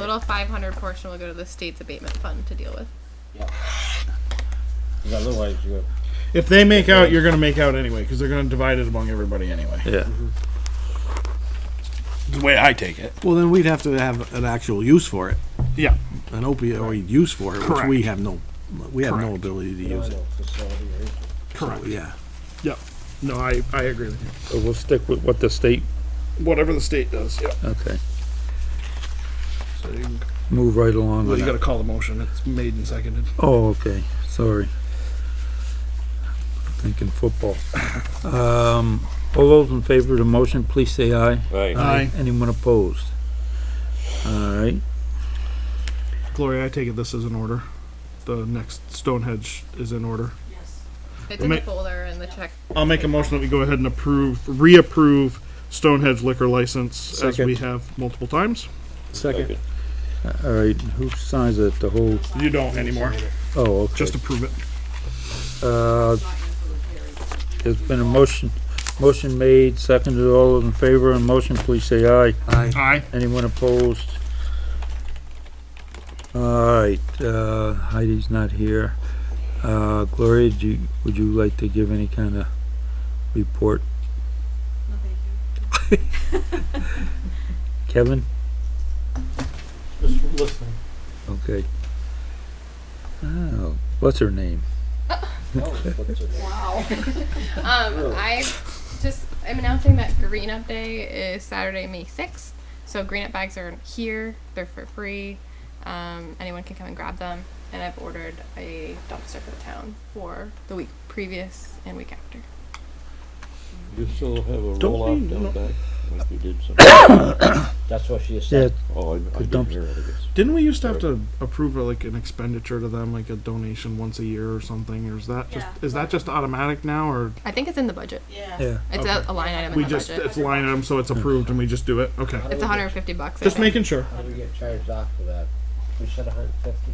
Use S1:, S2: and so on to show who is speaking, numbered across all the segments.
S1: total five hundred portion will go to the state's abatement fund to deal with.
S2: Because otherwise, you have
S3: If they make out, you're going to make out anyway because they're going to divide it among everybody anyway.
S4: Yeah.
S3: It's the way I take it.
S5: Well, then we'd have to have an actual use for it,
S3: Yeah.
S5: an opioid use for it, which we
S3: Correct.
S5: have no, we have no
S3: Correct.
S5: ability to
S2: you know,
S5: use it.
S2: facility or
S5: Correct. Yeah.
S3: Yeah. No, I, I agree with you.
S4: So we'll stick with what the state,
S3: Whatever the state does. Yeah.
S4: okay.
S3: So you,
S4: Move right along
S3: well,
S4: with
S3: you got to
S4: that.
S3: call the motion. It's made and seconded.
S4: Oh, okay, sorry. Thinking football. Um, all those in favor of the motion, please say aye.
S6: Right.
S3: Aye.
S4: Anyone opposed? All right,
S3: Gloria, I take it this is in order. The next Stonehenge is in order.
S1: It's in
S3: Ma-
S1: the folder and the check.
S3: I'll make a motion that we go ahead and approve, reapprove Stonehenge liquor license as we
S4: Second.
S3: have multiple times.
S5: Second.
S4: all right, who signs it, the whole,
S3: You don't anymore.
S4: oh, okay.
S3: Just approve it.
S4: Uh, there's been a motion, motion made, seconded, all those in favor of the motion, please say aye.
S5: Aye.
S3: Aye.
S4: Anyone opposed? Alright, uh, Heidi's not here. Uh, Gloria, do you, would you like to give any kind of report? Kevin?
S3: Just listening.
S4: Okay. Oh, what's her name?
S1: Um, I just am announcing that Green Up Day is Saturday, May sixth. So green up bags are here. They're for free. Um, anyone can come and grab them. And I've ordered a dumpster for the town for the week previous and week after.
S6: You still have a
S3: Don't
S6: roll-off
S3: be- no.
S6: down back, like you did some,
S2: That's what she
S4: Yeah,
S2: said.
S6: oh, I- I didn't
S4: dumps-
S6: hear it, I guess.
S3: Didn't we used to have to approve uh, like an expenditure to them, like a donation once a year or something? Or is that just
S7: Yeah.
S3: is that just automatic now, or
S1: I think it's in the budget.
S7: Yeah.
S4: yeah,
S1: It's
S3: Okay.
S1: a, a line item in
S3: we
S1: the
S3: just
S1: budget.
S3: it's line item so it's approved and we just do it? Okay,
S1: It's 150 bucks. I
S3: just
S1: think.
S3: making sure.
S2: How do we get charged off for that? We said 150.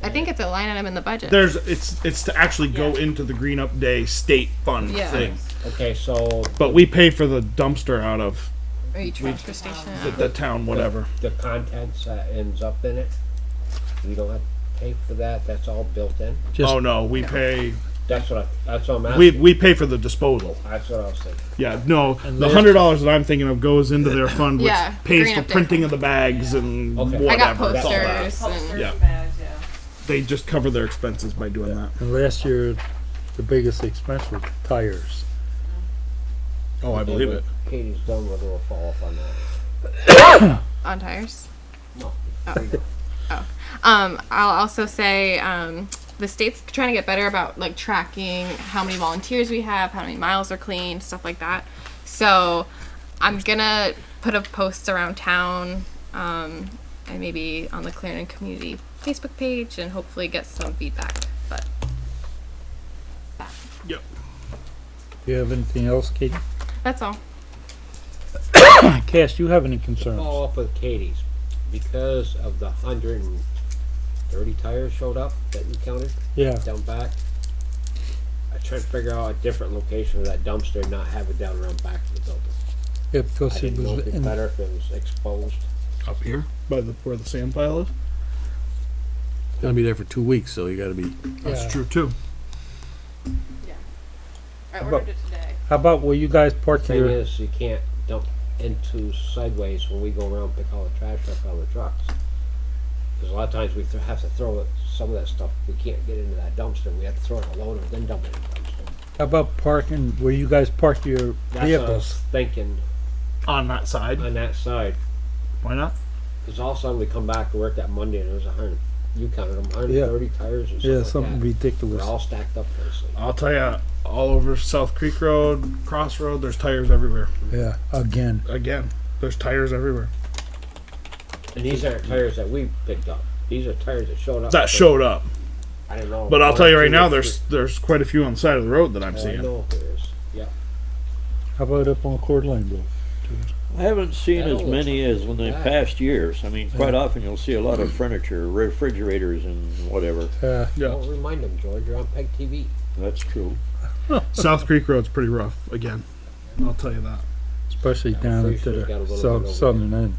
S1: I think it's a line item in the budget.
S3: There's it's it's to actually go into the Green Up Day state fund
S1: Yeah.
S3: thing,
S2: Okay, so
S3: but we pay for the dumpster out of
S1: Or you transfer station.
S3: the, the town, whatever.
S2: the contents that ends up in it, we don't have to pay for that. That's all built in.
S4: Just-
S3: oh no, we pay
S2: That's what I, that's what I'm
S3: we
S2: asking.
S3: we pay for the disposal.
S2: That's what I was thinking.
S3: Yeah, no, the
S4: then-
S3: hundred dollars that I'm thinking of goes into their fund, which
S1: Yeah,
S3: pays
S1: Green
S3: for
S1: Up Day
S3: printing
S1: fund.
S3: of the bags and
S2: Okay. I
S3: whatever.
S1: I got
S3: It's all that.
S1: posters and
S3: Yeah.
S7: Posters, bags, yeah.
S3: They just cover their expenses by doing that.
S4: and last year, the biggest expense was tires.
S3: Oh, I believe it.
S2: Katie's done with her fall off on that.
S1: on tires. Oh.
S2: No.
S1: Um, I'll also say um, the state's trying to get better about like tracking how many volunteers we have, how many miles are cleaned, stuff like that. So I'm gonna put a post around town um, and maybe on the Clarendon community Facebook page and hopefully get some feedback. But
S4: Do you have anything else, Kate?
S1: that's all.
S4: Cass, you have any concerns?
S3: Oh.
S2: Follow up with Katie's because of the 130 tires showed up that you counted.
S4: Yeah,
S2: down back. I tried to figure out a different location for that dumpster, and not have it down around back of the building.
S4: yeah,
S2: I
S4: because it
S2: didn't know
S4: was
S2: if it'd be
S4: in
S2: better if it was exposed.
S3: Up here, by the where the sand pile is.
S5: Gonna be there for two weeks, so you gotta be.
S4: Yeah.
S3: That's true too.
S7: I
S4: about-
S7: ordered it today.
S4: How about where you guys park
S2: Thing
S4: your,
S2: is, you can't dump into sideways when we go around and pick all the trash up out of the trucks. Because a lot of times we th- have to throw it, some of that stuff we can't get into that dumpster. We have to throw it in a loader, then dump it in the dumpster.
S4: how about parking, where you guys park your
S2: That's what I was
S4: vehicles?
S2: thinking
S3: On that side,
S2: on that side.
S3: why not?
S2: Because all of a sudden we come back to work that Monday, and there's a hundred. You counted them, 130 tires or something.
S4: Yeah,
S2: like
S4: something
S2: that. They're
S4: ridiculous.
S2: all stacked up nicely.
S3: I'll tell you, all over South Creek Road, Cross Road, there's tires everywhere.
S4: Yeah, again.
S3: Again, there's tires everywhere
S2: And these aren't tires that we picked up. These are tires that showed up.
S3: that showed up.
S2: I don't know.
S3: But I'll tell you right now,
S2: One, two,
S3: there's there's quite a few on the side of the road that I'm
S2: three. I
S3: seeing.
S2: know there is. Yeah.
S4: How about up on Coeur d'Alene Road?
S6: I haven't seen
S2: That
S6: as
S2: looks
S6: many as in the
S2: bad.
S6: past years. I mean, quite often you'll see a lot of furniture, refrigerators and whatever.
S4: Uh,
S3: Yeah,
S2: Don't remind them, George. You're on Peg TV.
S6: That's true.
S3: South Creek Road's pretty rough again. I'll tell you that.
S4: especially down
S2: pretty
S4: into
S2: sure we got a
S4: the
S2: little bit
S4: south,
S2: over
S4: southern end.